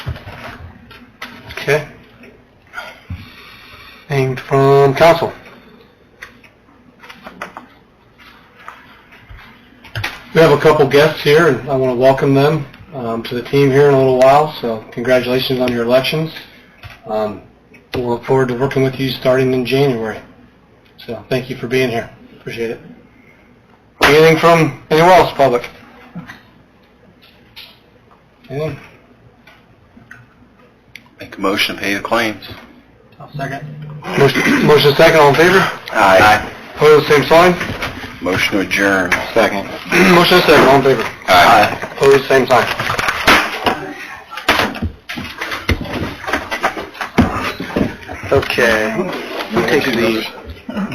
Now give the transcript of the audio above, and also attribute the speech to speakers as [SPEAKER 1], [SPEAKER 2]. [SPEAKER 1] Okay. Anything from council? We have a couple guests here, and I want to welcome them um, to the team here in a little while, so congratulations on your elections. Um, We'll look forward to working with you starting in January. So thank you for being here. Appreciate it. Anything from anyone else, public? Anything?
[SPEAKER 2] Make a motion to pay the claims.
[SPEAKER 1] Motion motion second, all in favor?
[SPEAKER 2] Aye.
[SPEAKER 1] Opposed, same sign.
[SPEAKER 2] Motion to adjourn. Second.
[SPEAKER 1] Motion is second, all in favor.
[SPEAKER 2] Aye.
[SPEAKER 1] Opposed, same sign.
[SPEAKER 2] Okay. We take these.